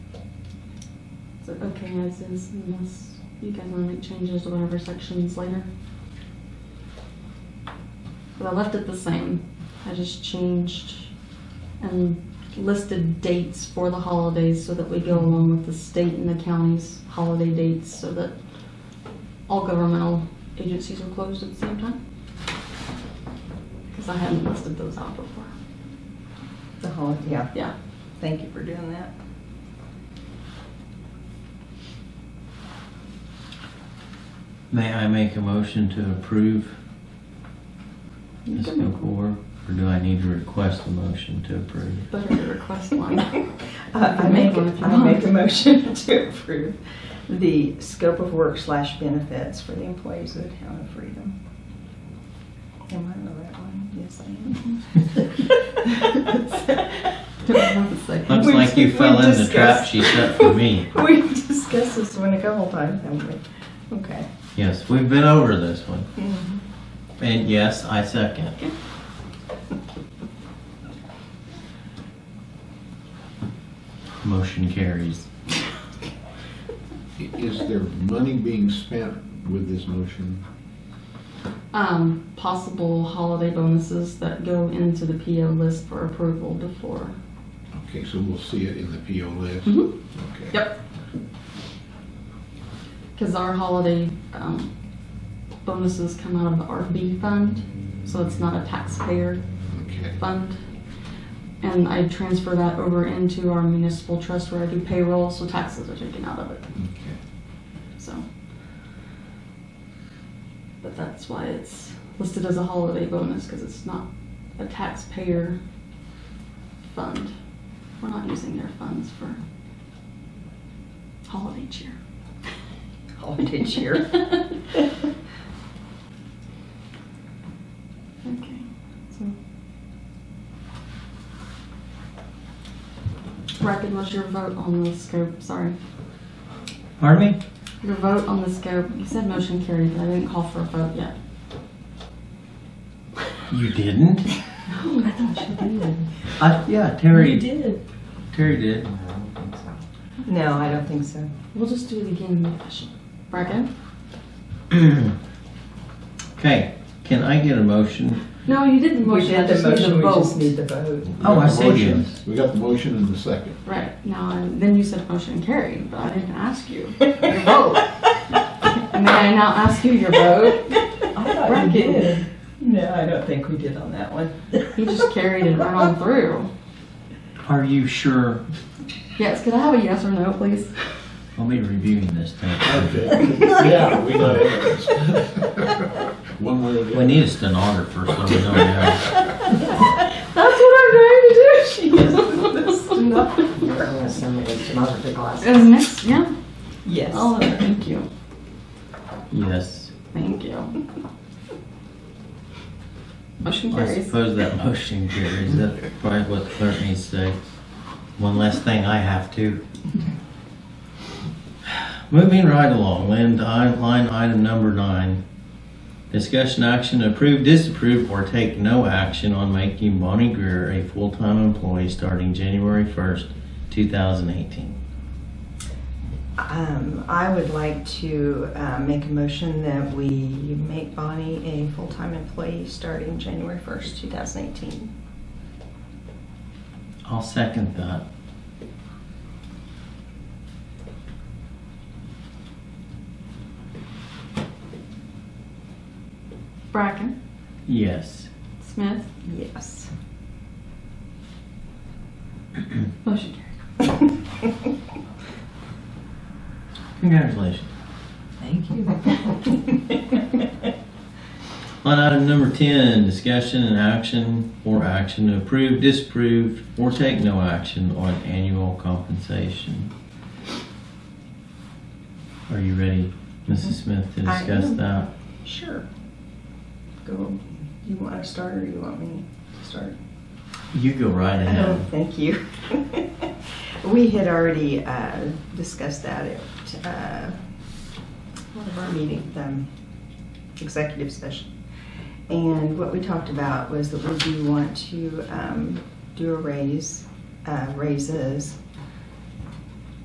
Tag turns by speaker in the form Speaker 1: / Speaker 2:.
Speaker 1: So, okay, as is, unless you guys wanna make changes to whatever sections later. But I left it the same, I just changed and listed dates for the holidays so that we go along with the state and the county's holiday dates so that all governmental agencies are closed at the same time. Cause I hadn't listed those out before,
Speaker 2: The whole, yeah,
Speaker 1: yeah.
Speaker 2: thank you for doing that.
Speaker 3: May I make a motion to approve
Speaker 1: You
Speaker 3: this
Speaker 1: can-
Speaker 3: book or, or do I need to request a motion to approve?
Speaker 1: Better to request one.
Speaker 2: Uh, I make, a- I make a motion to approve the scope of work slash benefits for the employees of the town of Freedom. Am I on the right one? Yes, I am.
Speaker 3: Looks
Speaker 2: We've-
Speaker 3: like you
Speaker 2: we've
Speaker 3: fell in the
Speaker 2: discussed-
Speaker 3: trap she set for me.
Speaker 2: We've discussed this one a couple times, haven't we? Okay.
Speaker 3: Yes, we've been over this one.
Speaker 1: Mm-hmm.
Speaker 3: And yes, I second. Motion carries.
Speaker 4: Is there money being spent with this motion?
Speaker 1: Um, possible holiday bonuses that go into the PO list for approval before.
Speaker 4: Okay, so we'll see it in the PO list?
Speaker 1: Mhm.
Speaker 4: Okay.
Speaker 1: Yep. Because our holiday, um, bonuses come out of the RB fund, so it's not a taxpayer
Speaker 4: Okay,
Speaker 1: fund. And I transfer that over into our municipal trust where I do payroll, so taxes are taken out of it,
Speaker 4: okay.
Speaker 1: so. But that's why it's listed as a holiday bonus, because it's not a taxpayer fund. We're not using their funds for holiday cheer.
Speaker 2: Holiday cheer.
Speaker 1: Okay, so. Bracken, what's your vote on the scope? Sorry.
Speaker 3: Pardon me?
Speaker 1: Your vote on the scope, you said motion carried, but I didn't call for a vote yet.
Speaker 3: You didn't?
Speaker 1: Oh, I thought you did.
Speaker 3: I, yeah, Terry. did. Terry did.
Speaker 2: No, I don't think so.
Speaker 1: We'll just do it again in fashion. Bracken?
Speaker 3: Okay, can I get a motion?
Speaker 1: No, you did the
Speaker 2: We
Speaker 1: motion, I
Speaker 2: did
Speaker 1: just
Speaker 2: the
Speaker 1: need the
Speaker 2: motion, we just need
Speaker 1: vote.
Speaker 2: the vote.
Speaker 3: Oh, I
Speaker 4: We got the
Speaker 3: see.
Speaker 4: motion- We got the motion and the second.
Speaker 1: Right, now, and then you said motion carried, but I didn't ask you your vote. May I now ask you your vote?
Speaker 2: I
Speaker 1: Bracken.
Speaker 2: No, I don't think we did on that one.
Speaker 1: He just carried it right on through.
Speaker 3: Are you sure?
Speaker 1: Yes, could I have a yes or no, please?
Speaker 3: I'll be reviewing this thing.
Speaker 4: Okay. Yeah, we got evidence. One way or the
Speaker 3: We
Speaker 4: other.
Speaker 3: need a stenographer so we know that.
Speaker 1: That's what I'm trying to do.
Speaker 5: I'm gonna send me a stenography class.
Speaker 1: It was next, yeah.
Speaker 2: Yes.
Speaker 1: All of it. Thank you.
Speaker 3: Yes.
Speaker 1: Thank you. Motion
Speaker 3: I
Speaker 1: carries.
Speaker 3: suppose that motion carries. That's probably what the clerk needs to say. One less thing I have to. Moving right along, Lynn, to i- line item number nine. Discussion action, approve, disapprove, or take no action on making Bonnie Greer a full-time employee starting January first, two thousand eighteen.
Speaker 2: Um, I would like to uh, make a motion that we make Bonnie a full-time employee starting January 1st, 2018.
Speaker 3: I'll second that.
Speaker 1: Bracken,
Speaker 3: Yes.
Speaker 1: Smith,
Speaker 2: Yes.
Speaker 1: motion carries.
Speaker 3: Congratulations.
Speaker 2: Thank you.
Speaker 3: On item number 10, discussion and action or action to approve, disapprove, or take no action on annual compensation. Are you ready, Mrs. Smith, to
Speaker 2: I
Speaker 3: discuss
Speaker 2: am.
Speaker 3: that?
Speaker 2: Sure. Go, you want to start or you want me to start?
Speaker 3: You go right
Speaker 2: Oh,
Speaker 3: ahead.
Speaker 2: thank you. We had already uh, discussed that at uh, one of our meetings, um, executive session. And what we talked about was that we do want to um, do a raise, uh, raises